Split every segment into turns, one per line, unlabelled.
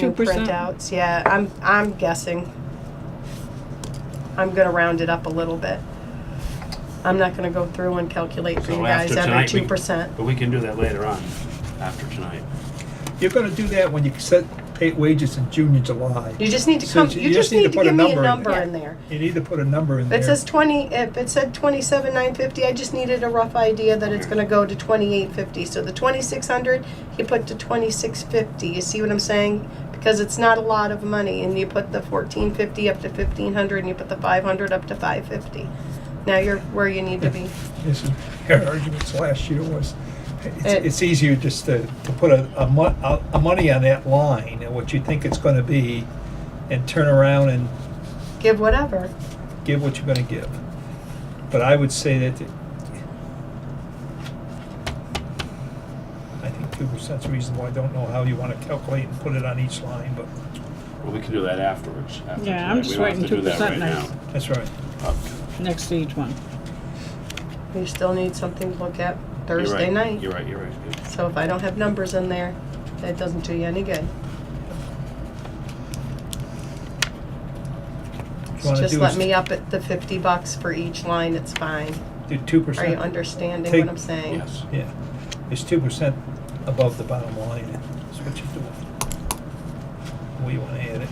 Two
new
percent.
printouts, yeah, I'm, I'm guessing. I'm gonna round it up a little bit. I'm not gonna go through and calculate for
So
you
after
guys every
tonight, we-
two percent.
But we can do that later on, after tonight.
You're gonna do that when you set pay wages in June and July.
You just need to come,
So
you just need to
put a
give me a
in
number
there.
in there.
You need to put a number in there.
It says twenty, if it said twenty-seven nine fifty, I just needed a rough idea that it's
Okay.
gonna go to twenty-eight fifty, so the twenty-six hundred, you put to twenty-six fifty, you see what I'm saying? Because it's not a lot of money, and you put the fourteen fifty up to fifteen hundred, and you put the five hundred up to five fifty. Now you're where you need to be.
This is, our arguments last year was,
It-
it's, it's easier just to, to put a, a mon, a, a money on that line and what you think it's gonna be and turn around and
Give whatever,
give what you're gonna give. But I would say that it- I think two percent's reasonable. I don't know how you wanna calculate and put it on each line, but
Well, we can do that afterwards, after tonight.
Yeah, I'm just waiting
We don't have to
2%
do that right
now.
that's right.
now. Oh, Okay.
next to each one.
you still need something to look at
You're
Thursday
right.
night.
You're right, you're right.
So if I don't have numbers in there, that doesn't do you any good.
you wanna
Just
do
let
is
me up at the fifty bucks for each line, it's fine.
Do two
Are
percent.
you understanding
Take-
what I'm saying?
Yes.
Yeah, it's two percent above the bottom line, is what you're doing. We wanna add it.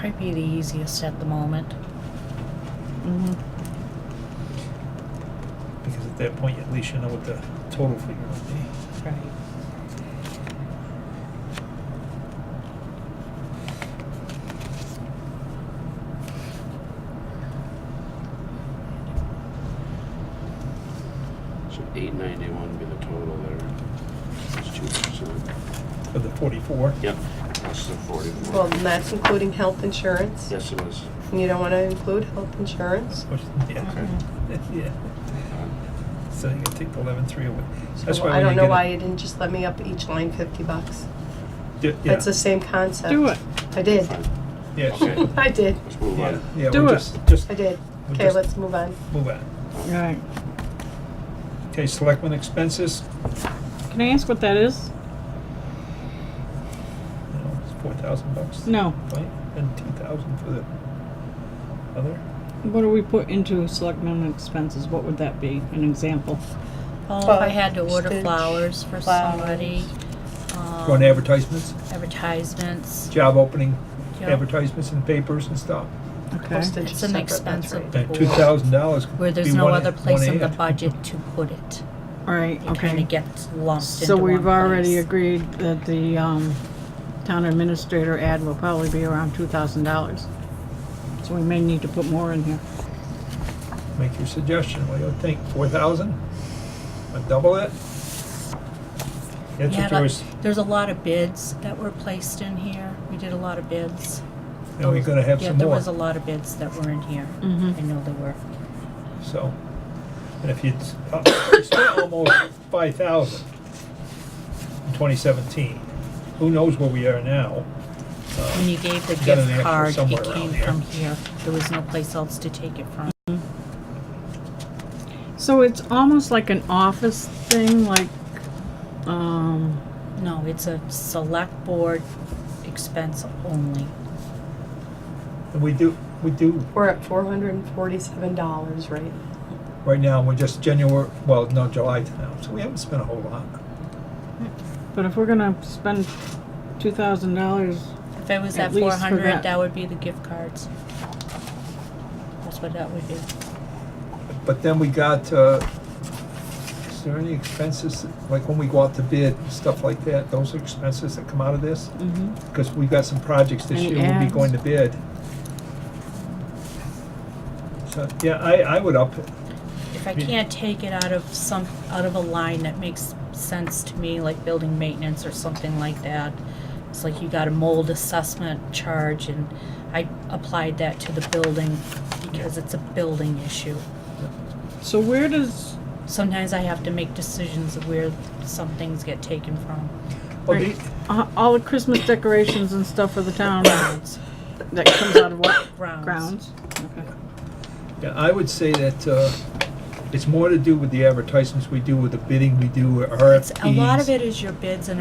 Probably the easiest at the moment.
Because at that point, at least you know what the total figure would be.
Right.
So eight ninety-one be the total there. It's two percent.
For the forty-four,
Yep, that's the forty-four.
Well, and that's including health insurance.
Yes, it was.
You don't wanna include health insurance?
which, yeah, yeah,
Uh,
so you gotta take the eleven-three away. That's
So
why
I
when
don't
you
know
get
why
it-
you didn't just let me up each line fifty bucks.
Yeah,
That's the same concept.
Do it.
I did.
Fine,
Yeah,
Okay.
I did,
let's move
yeah,
on.
yeah,
Do
we
it.
just, just
I did.
We'll
Okay,
just-
let's move on.
move on.
Right.
Okay, selectmen expenses,
Can I ask what that is?
you know, it's four thousand bucks,
No.
right? And two thousand for the other.
What do we put into selectmen expenses? What would that be? An example.
Well, if I
But
had to order
stitch,
flowers for somebody.
Go on
um,
advertisements,
Advertisements.
job opening,
you know,
advertisements in papers and stuff.
Okay.
Postage
It's
is
an
separate,
expense
that's
of
right.
the
That two
board,
thousand dollars could be one.
where there's no other place in
in
the budget to put it.
All right,
It kinda
okay.
gets lumped into
So
one
we've already
place.
agreed that the, um, town administrator ad will probably be around two thousand dollars. So we may need to put more in here.
Make your suggestion, what do you think, four thousand? Or double it? That's
Yeah,
what yours,
but there's a lot of bids that were placed in here. We did a lot of bids.
and we're gonna have
Yeah,
some
there
more,
was a lot of bids that were in here.
Mhm.
I know there were.
so. And if you, it's spent almost five thousand in twenty seventeen, who knows where we are now?
When you gave the
You got an
gift
extra
card,
somewhere
it
around
came
here.
from here. There was no place else to take it from.
So it's almost like an office thing, like, um,
No, it's a select board expense only.
And we do, we do,
We're at four hundred and forty-seven dollars right now.
right now, we're just January, well, no, July to now, so we haven't spent a whole lot.
but if we're gonna spend two thousand dollars,
If it was
At
at
least
four
for that.
hundred, that would be the gift cards. That's what that would be.
But then we got, uh, is there any expenses, like when we go out to bid, stuff like that, those are expenses that come out of this?
mm-hmm,
Because we've got some projects this
Any
year we'll be
ads?
going to bid. So, yeah, I, I would up it.
If I
Yeah.
can't take it out of some, out of a line that makes sense to me, like building maintenance or something like that. It's like you got a mold assessment charge and I applied that to the building because it's a building issue.
so where does,
Sometimes I have to make decisions of where some things get taken from.
Well,
Right.
the-
uh, all the Christmas decorations and stuff for the town, that comes out of what?
Grounds.
Grounds, okay.
Yeah, I would say that, uh, it's more to do with the advertisements we do, with the bidding we do,
It's,
RFPs.
a lot of it is your bids and